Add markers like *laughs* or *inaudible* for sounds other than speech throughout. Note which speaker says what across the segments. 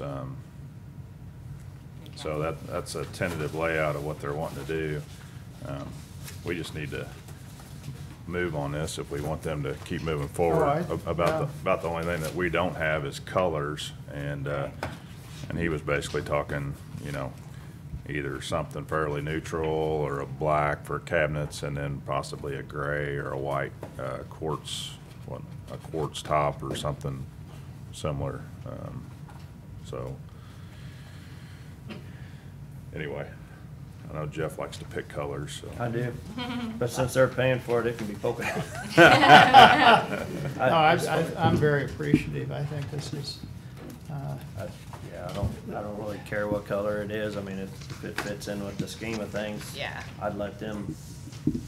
Speaker 1: Um, So that, that's a tentative layout of what they're wanting to do. Um, We just need to move on this if we want them to keep moving forward.
Speaker 2: Alright,
Speaker 1: A- About,
Speaker 2: yeah.
Speaker 1: the about the only thing that we don't have is colors, and, uh, and he was basically talking, you know, either something fairly neutral, or a black for cabinets, and then possibly a gray or a white uh, quartz, what, a quartz top or something similar, um, so. Anyway, I know Jeff likes to pick colors, so.
Speaker 3: I
Speaker 4: *laughs*
Speaker 3: do. But since they're paying for it, it can be polka dot.
Speaker 2: No, I, I- I'm very appreciative. I think this is, uh,
Speaker 3: I- Yeah, I don't, I don't really care what color it is. I mean, if if it fits in with the scheme of things.
Speaker 4: Yeah.
Speaker 3: I'd let them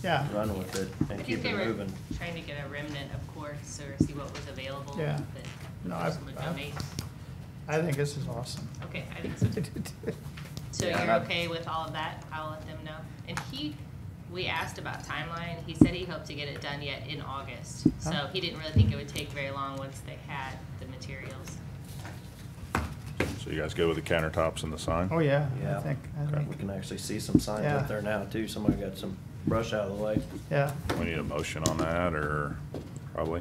Speaker 2: yeah,
Speaker 3: run with it
Speaker 4: I
Speaker 3: and
Speaker 4: think
Speaker 3: keep
Speaker 4: they
Speaker 3: it
Speaker 4: were
Speaker 3: moving.
Speaker 4: trying to get a remnant of quartz or see what was available.
Speaker 2: Yeah.
Speaker 4: But
Speaker 2: No,
Speaker 4: the
Speaker 2: I-
Speaker 4: person would
Speaker 2: I-
Speaker 4: donate.
Speaker 2: I think this is *laughs* awesome.
Speaker 4: Okay, I think so. So
Speaker 3: Yeah,
Speaker 4: you're
Speaker 3: and I-
Speaker 4: okay with all of that? I'll let them know. And he, we asked about timeline. He said he hoped to get it done yet in August.
Speaker 2: Huh.
Speaker 4: So he didn't really think it would take very long once they had the materials.
Speaker 1: So you guys go with the countertops and the sign?
Speaker 2: Oh, yeah, I
Speaker 3: Yeah.
Speaker 2: think, I
Speaker 3: We
Speaker 2: think,
Speaker 3: can actually see some signs
Speaker 2: Yeah.
Speaker 3: up there now too. Somebody got some brush out of the way.
Speaker 2: yeah.
Speaker 1: We need a motion on that, or probably?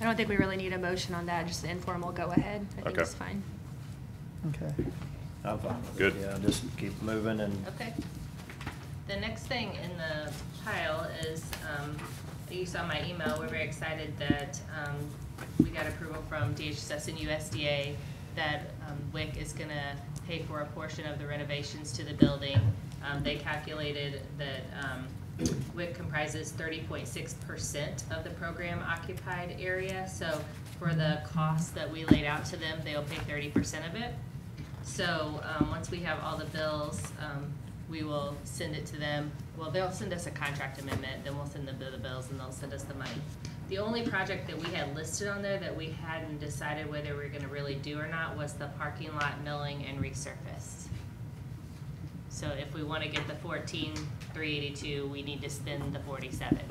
Speaker 5: I don't think we really need a motion on that, just an informal go-ahead, I think
Speaker 1: Okay.
Speaker 5: it's fine.
Speaker 2: Okay.
Speaker 3: I'm fine with it.
Speaker 1: Good.
Speaker 3: Yeah, just keep moving and
Speaker 4: Okay. The next thing in the pile is, um, you saw my email, we're very excited that, um, we got approval from DHS and USDA that, um, WIC is gonna pay for a portion of the renovations to the building. Um, they calculated that, um, WIC comprises thirty point six percent of the program occupied area. So for the cost that we laid out to them, they'll pay thirty percent of it. So, um, once we have all the bills, um, we will send it to them. Well, they'll send us a contract amendment, then we'll send them the bills and they'll send us the money. The only project that we had listed on there that we hadn't decided whether we are gonna really do or not was the parking lot milling and resurface. So if we wanna get the fourteen, three eighty-two, we need to spend the forty-seven,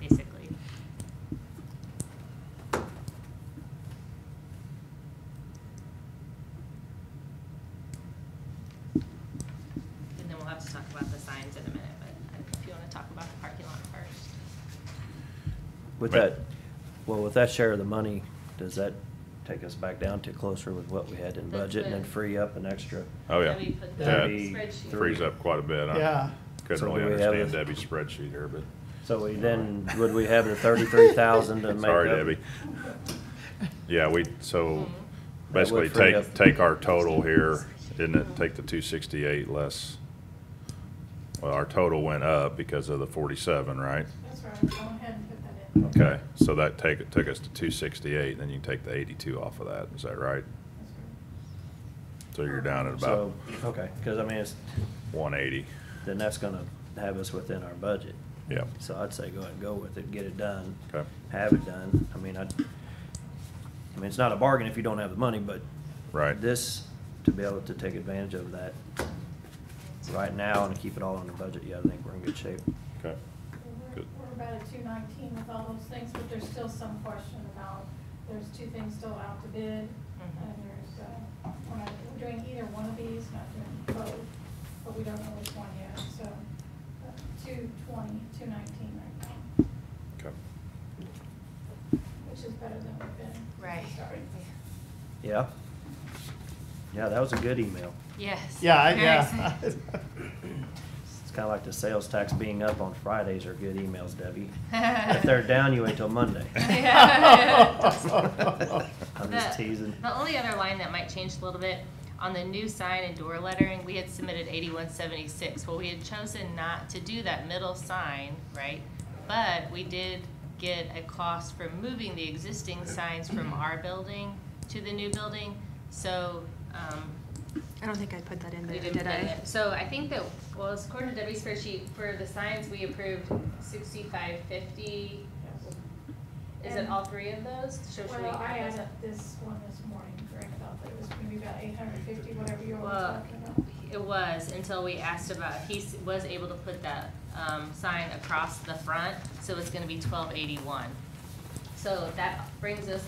Speaker 4: basically. And then we'll have to talk about the signs in a minute, but if you wanna talk about the parking lot first.
Speaker 3: with
Speaker 1: Right.
Speaker 3: that, well, with that share of the money, does that take us back down to closer with what we had in
Speaker 4: That's
Speaker 3: budget and then
Speaker 4: good.
Speaker 3: free up an extra?
Speaker 1: Oh, yeah.
Speaker 4: Let me put the
Speaker 1: That
Speaker 4: spreadsheet.
Speaker 1: Frees up quite a bit. I
Speaker 2: Yeah.
Speaker 3: So
Speaker 1: Couldn't really
Speaker 3: do we have
Speaker 1: understand
Speaker 3: a-
Speaker 1: Debbie's spreadsheet here, but,
Speaker 3: So
Speaker 1: *laughs*
Speaker 3: we then, would we have the thirty-three thousand to make up?
Speaker 1: sorry, Debbie. Yeah, we, so
Speaker 3: would
Speaker 1: basically
Speaker 3: free
Speaker 1: take,
Speaker 3: up-
Speaker 1: take our total here, didn't it, take the two sixty-eight less, well, our total went up because of the forty-seven, right?
Speaker 6: That's right, go ahead and put that in.
Speaker 1: Okay, so that take, took us to two sixty-eight, then you can take the eighty-two off of that, is that right?
Speaker 6: That's right.
Speaker 1: So you're down at about
Speaker 3: So, okay, because I mean, it's,
Speaker 1: one eighty,
Speaker 3: then that's gonna have us within our budget.
Speaker 1: yeah,
Speaker 3: So I'd say go ahead and go with it, get it done.
Speaker 1: Okay.
Speaker 3: Have it done. I mean, I, I mean, it's not a bargain if you don't have the money, but.
Speaker 1: right.
Speaker 3: This, to be able to take advantage of that right now and keep it all under budget, yeah, I think we're in good shape.
Speaker 1: Okay,
Speaker 6: We're-
Speaker 1: Good.
Speaker 6: We're about at two nineteen with all those things, but there's still some question about, there's two things still out to bid. And there's, uh, we're not, we're doing either one of these, not doing both, but we don't know which one yet, so. uh, Two twenty, two nineteen right now,
Speaker 1: okay.
Speaker 6: which is better than we've been.
Speaker 4: Right.
Speaker 6: Sorry.
Speaker 3: Yeah? Yeah, that was a good email.
Speaker 4: Yes.
Speaker 2: Yeah, I-
Speaker 4: Very
Speaker 2: yeah. *laughs*
Speaker 4: excited.
Speaker 3: It's kinda like the sales tax being up on Fridays are good emails, Debbie. If they're down, you wait till Monday.
Speaker 2: *laughs*
Speaker 3: I'm just
Speaker 4: The-
Speaker 3: teasing.
Speaker 4: The only other line that might change a little bit, on the new sign and door lettering, we had submitted eighty-one seventy-six. Well, we had chosen not to do that middle sign, right? But we did get a cost for moving the existing signs from our building to the new building. So, um,
Speaker 5: I don't think I put that in
Speaker 4: We
Speaker 5: there,
Speaker 4: didn't
Speaker 5: did
Speaker 4: put
Speaker 5: I?
Speaker 4: it. So I think that, well, it's according to Debbie's spreadsheet, for the signs, we approved sixty-five fifty.
Speaker 6: Yes.
Speaker 4: Is it all three of those? So should we
Speaker 6: Well, I
Speaker 4: add those
Speaker 6: added
Speaker 4: up?
Speaker 6: this one this morning, Greg thought that it was maybe about eight hundred fifty, whatever you all were
Speaker 4: Well,
Speaker 6: talking about.
Speaker 4: It was, until we asked about, he s- was able to put that, um, sign across the front, so it's gonna be twelve eighty-one. So that brings us